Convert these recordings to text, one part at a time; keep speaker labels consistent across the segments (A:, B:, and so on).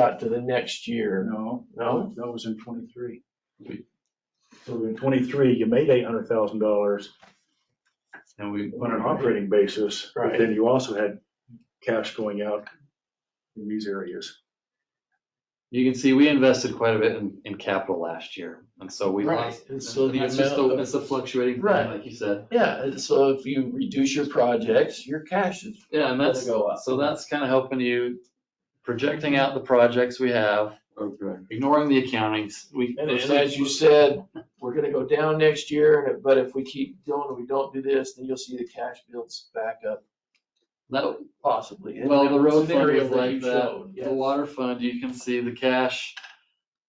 A: out to the next year.
B: No,
A: No?
B: that was in twenty-three. So in twenty-three, you made eight hundred thousand dollars
C: And we
B: on an operating basis, but
A: Right.
B: then you also had cash going out in these areas.
C: You can see, we invested quite a bit in, in capital last year, and so we
A: Right,
C: lost.
A: and so the
C: It's just
A: amount
C: the,
A: of-
C: it's the fluctuating thing,
A: Right.
C: like you said.
A: Yeah, and so if you reduce your projects, your cash is
C: Yeah, and
A: gonna
C: that's,
A: go up.
C: so that's kind of helping you, projecting out the projects we have, ignoring the accountings, we.
A: And and as you said, we're gonna go down next year, and it- but if we keep doing, we don't do this, then you'll see the cash builds back up
C: That,
A: possibly. And
C: Well,
A: that
C: the road fund
A: scenario
C: was like
A: you
C: that.
A: showed,
C: the
A: yes.
C: water fund, you can see the cash,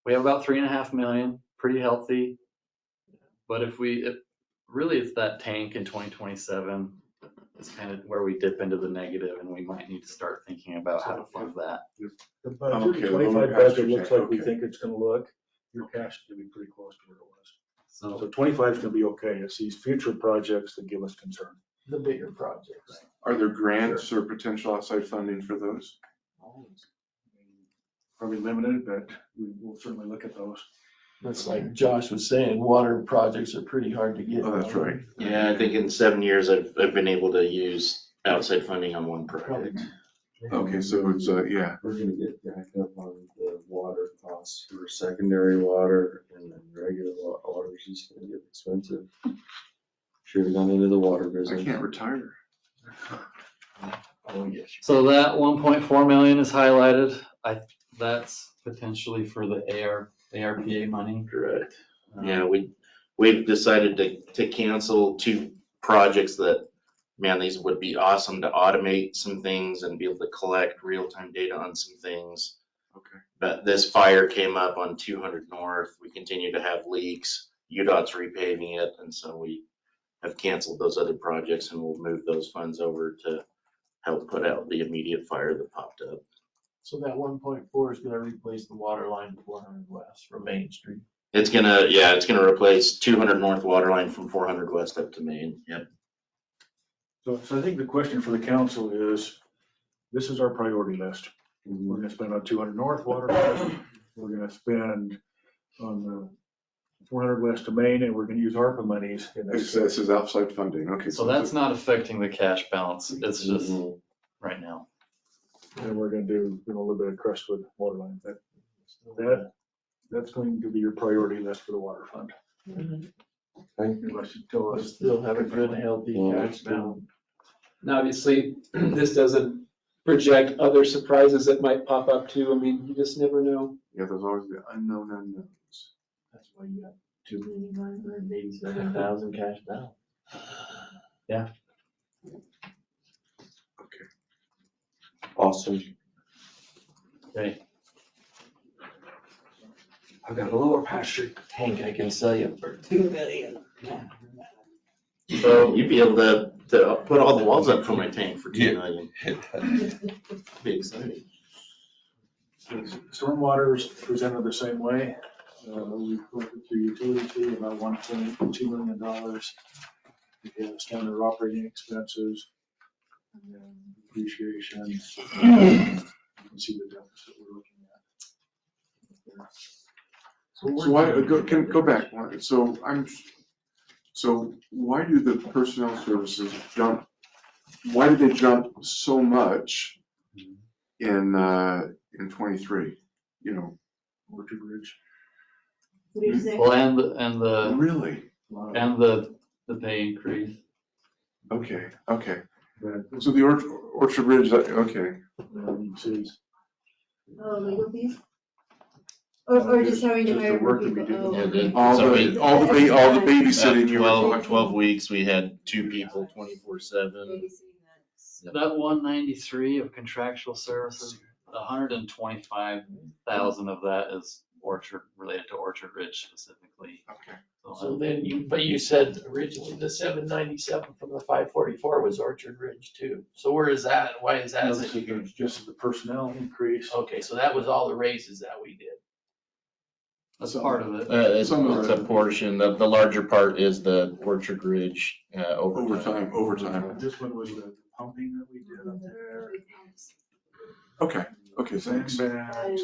C: we have about three and a half million, pretty healthy. But if we, if, really it's that tank in twenty twenty-seven, it's kind of where we dip into the negative and we might need to start thinking about how to fund that.
B: The
D: I'm
B: budget,
D: okay with
B: twenty-five
D: lower cash
B: budget looks
D: check,
B: like we
D: okay.
B: think it's gonna look, your cash is gonna be pretty close to where it was.
C: So
B: So twenty-five's gonna be okay, it's these future projects that give us concern.
A: The bigger projects.
D: Are there grants or potential outside funding for those?
B: Probably limited, but we will certainly look at those.
A: That's like Josh was saying, water projects are pretty hard to get.
D: Oh, that's right.
E: Yeah, I think in seven years, I've, I've been able to use outside funding on one project.
D: Okay, so it's, uh, yeah,
F: We're gonna get backed up on the water costs for secondary water and then regular wa- water is just gonna get expensive. Should have gone into the water
D: I
F: business.
D: can't retire.
A: Oh, yes.
C: So that one point four million is highlighted. I, that's potentially for the AR, ARPA money.
E: Correct.
C: Um,
E: Yeah, we, we've decided to, to cancel two projects that, man, these would be awesome to automate some things and be able to collect real-time data on some things.
D: Okay.
E: But this fire came up on two hundred north. We continue to have leaks. UDOT's repaving it, and so we have canceled those other projects and we'll move those funds over to help put out the immediate fire that popped up.
A: So that one point four is gonna replace the water line to four hundred west from Main Street.
E: It's gonna, yeah, it's gonna replace two hundred north water line from four hundred west up to Maine. Yep.
B: So, so I think the question for the council is, this is our priority list. We're gonna spend on two hundred north water, West, we're gonna spend on the four hundred west of Main, and we're gonna use ARPA monies. in
D: This
B: this.
D: this is outside funding, okay.
C: So that's not affecting the cash balance. It's just
E: Mm-hmm.
C: right now.
B: And we're gonna do, you know, a little bit of Crestwood water line. That, that, that's going to be your priority list for the water fund. Unless you tell
A: We'll
B: us.
A: still have a good healthy
F: Yeah.
A: cash balance.
G: And obviously, this doesn't project other surprises that might pop up too. I mean, you just never know.
D: Yeah, there's always the unknown unknowns.
A: That's why you have two million nine hundred and eighty-seven thousand cash balance.
F: Awesome.
C: Okay.
F: I've got a lower pasture tank I can sell you for two million.
E: So you'd be able to, to put all the walls up for my tank for two
F: Yeah.
E: million. Be exciting.
B: Stormwater's presented the same way. Uh, We collected through utility fee about one point two million dollars. We have standard operating expenses. and then Depreciation. You can see the deficit we're looking at.
D: So why, go, can, go back, one. so I'm, so why do the personnel services jump, why did they jump so much in, uh, in twenty-three? You know,
B: Orchard Ridge.
H: What do you say?
C: Well, and, the- and the,
D: really?
B: a lot of-
C: and the, the pay increase.
D: Okay, okay.
B: but,
D: So the Orch- Orchard Ridge, that- okay,
B: um, you see,
H: Oh, legal fees? Or, or just having to
B: Just the
H: hire more
B: work that we
H: people?
B: did.
H: Oh,
E: Yeah,
H: okay.
D: all
E: So
D: the, all the, ba- all the babysitting you were
E: Twelve,
H: talking-
E: twelve weeks, we had two people twenty-four seven.
H: Babysitting that's-
C: That one ninety-three of contractual services, hundred and twenty-five thousand of that is orchard, related to Orchard Ridge specifically.
D: Okay.
C: So,
A: So then you, but you said originally the seven ninety-seven from the five forty-four was Orchard Ridge too. So where is that? Why is that?
B: This is just the personnel increase.
A: Okay, so that was all the raises that we did.
C: That's part of it.
E: Uh, it's,
D: Some of
E: it's
D: it.
E: a portion, the, the larger part is the Orchard Ridge, uh, overtime.
D: Overtime, overtime.
B: This one was the pumping that we did up there.
D: Okay, okay, thanks.
B: Sandbags,